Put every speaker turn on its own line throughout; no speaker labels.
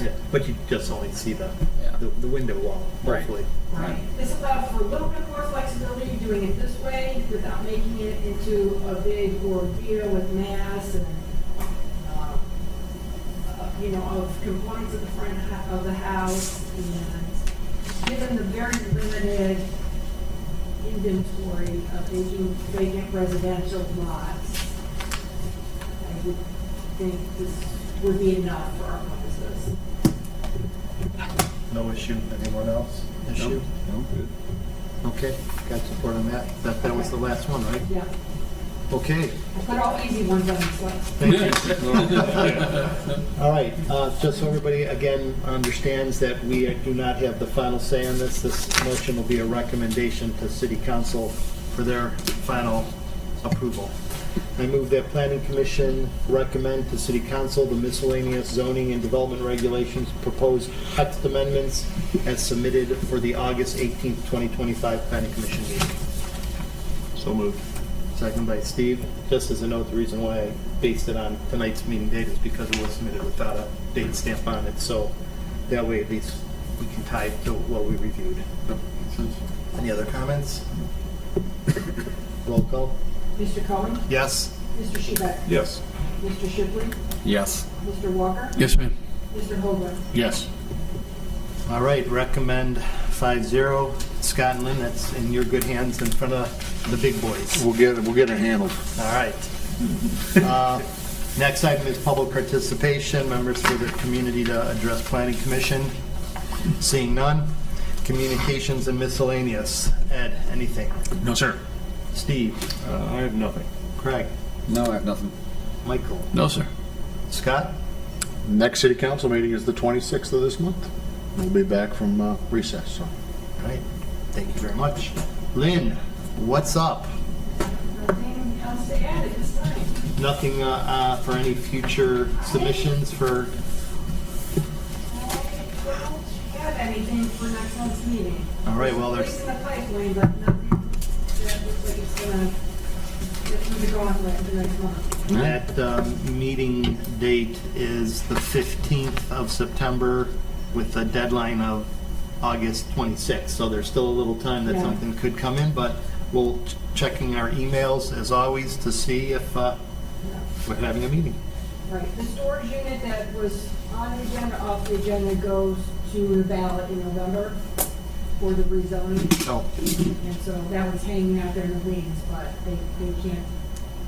Yeah, But you just only see the,
Yeah.
the, the window wall,
Right.
hopefully.
Right, this allows for a little bit more flexibility, doing it this way without making it into a big ordeal with mass and, uh, uh, you know, of compliance of the front ho- of the house and given the very limited inventory of vacant- vacant residential lots, I would think this would be enough for our purposes.
No issue, anyone else? Issue?
No, good.
Okay, got support on that. That, that was the last one, right?
Yeah,
Okay,
I put all easy ones on this list.
thank you.
Yeah.
All right, uh, just so everybody again understands that we do not have the final say on this, this motion will be a recommendation to city council for their final approval. I move that planning commission recommend to city council the miscellaneous zoning and development regulations proposed text amendments as submitted for the August 18th, 2025 planning commission meeting. So moved. Second by Steve. Just as a note, the reason why I based it on tonight's meeting date is because it was submitted without a date stamp on it, so that way at least we can tie it to what we reviewed. Any other comments? Roll call.
Mr. Cohen?
Yes?
Mr. Shebeck?
Yes.
Mr. Shipley?
Yes.
Mr. Walker?
Yes, ma'am.
Mr. Holbrook?
Yes.
All right, recommend 5-0. Scott and Lynn, that's in your good hands in front of the big boys.
We'll get it, we'll get it handled.
All right. Uh, Next item is public participation, members for the community to address planning commission. Seeing none. Communications and miscellaneous. Ed, anything?
No, sir.
Steve?
Uh, I have nothing.
Craig?
No, I have nothing.
Michael?
No, sir.
Scott?
Next city council meeting is the 26th of this month. We'll be back from uh, recess, so.
All right, thank you very much. Lynn, what's up?
Nothing else to add at this time.
Nothing uh, uh, for any future submissions for,
I don't have anything for next month's meeting.
all right, well,
It's
there's,
in the pipeline, but nothing that looks like it's gonna, that's gonna go on for next month.
that um, meeting date is the 15th of September with a deadline of August 26th. So there's still a little time that
Yeah.
something could come in, but we'll ch- checking our emails as always to see if uh, we're having a meeting.
Right, the storage unit that was on the agenda, off the agenda, goes to the ballot in November for the rezoning.
So,
And so that was hanging out there in the wings, but they, they can't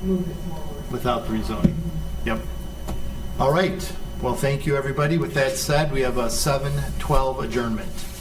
move it forward.
without the rezoning. Yep. All right, well, thank you, everybody. With that said, we have a 7:12 adjournment.